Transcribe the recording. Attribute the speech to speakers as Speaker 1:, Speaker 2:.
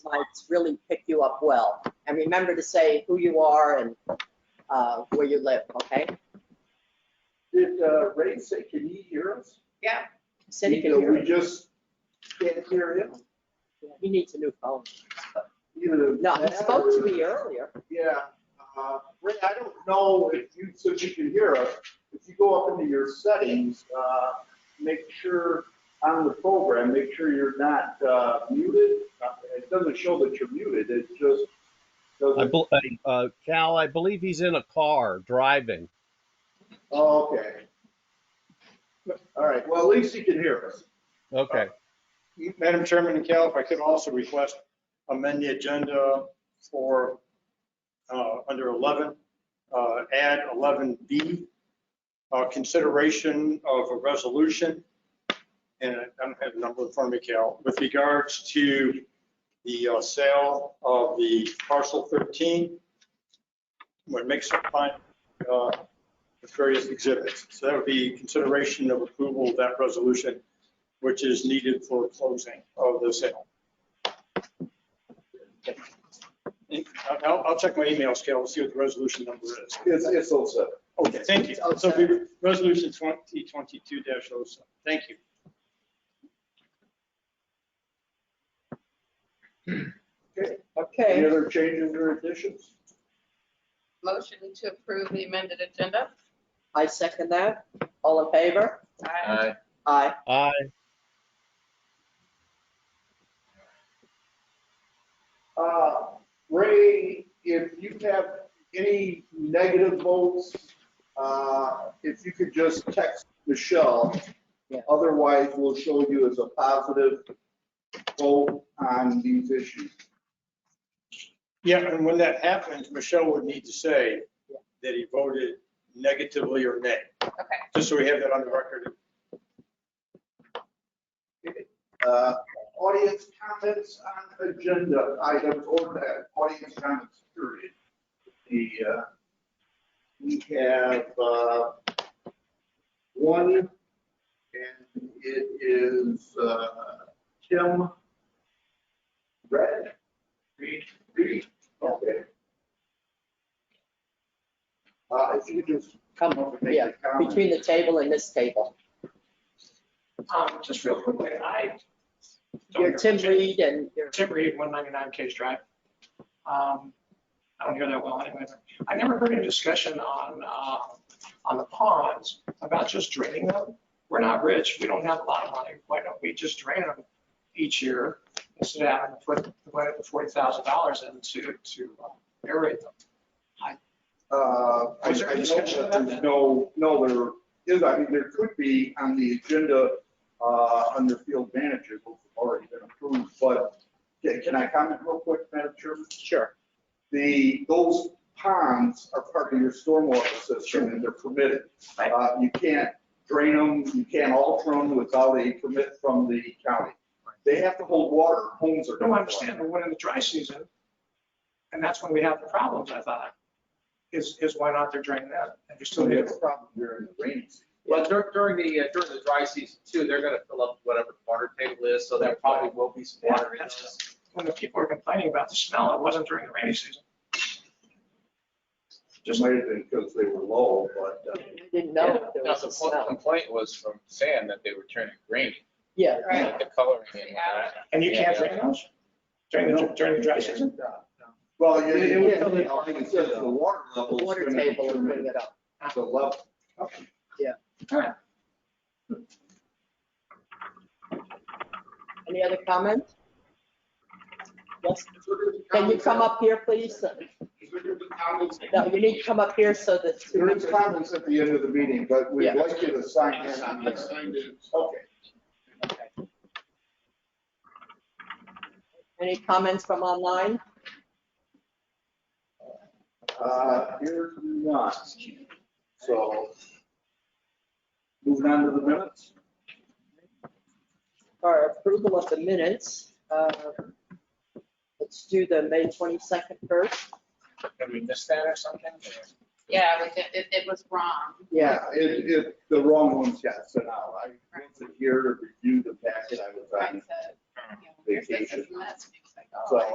Speaker 1: slides really pick you up well. And remember to say who you are and uh, where you live, okay?
Speaker 2: Did uh, Ray say, can he hear us?
Speaker 3: Yeah.
Speaker 1: Cindy can
Speaker 2: You know,
Speaker 1: hear
Speaker 2: We
Speaker 1: you.
Speaker 2: just can't hear him.
Speaker 1: He needs a new phone.
Speaker 2: Either
Speaker 1: No, he
Speaker 2: that
Speaker 1: spoke to
Speaker 2: or-
Speaker 1: me earlier.
Speaker 2: Yeah. uh, Ray, I don't know if you, so you can hear us, if you go up into your settings, uh, make sure on the program, make sure you're not uh, muted. Uh, It doesn't show that you're muted, it just
Speaker 4: I,
Speaker 2: doesn't.
Speaker 4: bel- uh, Cal, I believe he's in a car driving.
Speaker 2: Oh, okay. All right, well, at least he can hear us.
Speaker 4: Okay.
Speaker 5: Madam Chairman and Cal, if I could also request amend the agenda for, uh, under 11, uh, add 11B, uh, consideration of a resolution, and I don't have the number in front of me, Cal, with regards to the uh, sale of the parcel 13, when mixed up on uh, with various exhibits. So that would be consideration of approval of that resolution which is needed for closing of the sale. I'll- I'll, I'll check my emails, Cal, and see what the resolution number is.
Speaker 2: It's, it's all set.
Speaker 5: Okay, thank you. So it'll be resolution 2022 07. Thank you.
Speaker 2: Okay,
Speaker 1: Okay.
Speaker 2: any other changes or additions?
Speaker 3: Motion to approve the amended agenda.
Speaker 1: I second that. All in favor?
Speaker 3: Aye.
Speaker 1: Aye.
Speaker 4: I,
Speaker 2: Uh, Ray, if you have any negative votes, uh, if you could just text Michelle.
Speaker 1: Yeah.
Speaker 2: Otherwise, we'll show you as a positive vote on these issues.
Speaker 5: Yeah, and when that happens, Michelle would need to say that he voted negatively or nay,
Speaker 3: Okay.
Speaker 5: just so we have that on the record.
Speaker 2: Uh, Audience comments on agenda items or that audience comments period. The, uh, we have uh, one, and it is uh, Tim Red. Reed, Reed, okay. Uh, If you could just come over and make
Speaker 1: Yeah,
Speaker 2: a comment.
Speaker 1: between the table and this table.
Speaker 6: Um, just real quickly, I.
Speaker 1: You're Tim Reed and you're,
Speaker 6: Tim Reed, one ninety-nine Case Drive. Um, I don't hear that well anyway. I never heard any discussion on, uh, on the ponds about just draining them. We're not rich, we don't have a lot of money, why don't we just drain them each year instead of having to put the forty thousand dollars in to, to uh, aerate them?
Speaker 2: Uh, I I
Speaker 6: Was there
Speaker 2: know
Speaker 6: a discussion
Speaker 2: that
Speaker 6: about
Speaker 2: there's
Speaker 6: that?
Speaker 2: no, no, there is, I mean, there could be on the agenda, uh, under field manager, which have already been approved, but can can I comment real quick, Madam Chairman?
Speaker 1: sure.
Speaker 2: The, those ponds are part of your stormwater system and they're permitted.
Speaker 6: Right.
Speaker 2: Uh, You can't drain them, you can't alter them without a permit from the county. They have to hold water, homes are.
Speaker 6: No, I understand, but when in the dry season, and that's when we have the problems, I thought, is, is why not they're draining that? And you're
Speaker 2: So
Speaker 6: still
Speaker 2: they
Speaker 6: here.
Speaker 2: have a problem during the rainy season.
Speaker 7: Well, dur- during the, uh, during the dry season too, they're gonna fill up whatever water table is, so there probably will be some water in those.
Speaker 6: when the people are complaining about the smell, it wasn't during the rainy season.
Speaker 2: Just might have been because they were low, but. uh,
Speaker 1: Didn't know there
Speaker 7: Now,
Speaker 1: was
Speaker 7: the
Speaker 1: a
Speaker 7: pl-
Speaker 1: smell.
Speaker 7: complaint was from Sam that they were turning green,
Speaker 1: Yeah.
Speaker 3: Right.
Speaker 7: the coloring. in
Speaker 3: They
Speaker 7: it.
Speaker 3: added it.
Speaker 6: And you can't
Speaker 7: Yeah,
Speaker 6: drain those during the, during the dry season?
Speaker 2: Well, it, it would
Speaker 1: Yeah.
Speaker 2: come in, I think it says the water
Speaker 1: The
Speaker 2: level. is
Speaker 1: water
Speaker 2: gonna be
Speaker 1: table and bring it up.
Speaker 2: The level.
Speaker 1: Any other comments? Yes. Can you come up here, please? No, you need to come up here so that.
Speaker 2: There is comments at the end of the meeting, but we'd
Speaker 1: Yeah.
Speaker 2: like you to sign in on this. Okay.
Speaker 1: Any comments from online?
Speaker 2: Uh, here's none. So. Moving on to the minutes.
Speaker 1: Our approval of the minutes. uh, Let's do the May 22nd first.
Speaker 7: Did we miss that or something?
Speaker 3: Yeah, but it, it- it was wrong.
Speaker 1: Yeah,
Speaker 2: It, it, the wrong ones got sent out. I wasn't here to review the packet I was
Speaker 3: Right,
Speaker 2: on.
Speaker 3: so, you know, there's- there's some mess.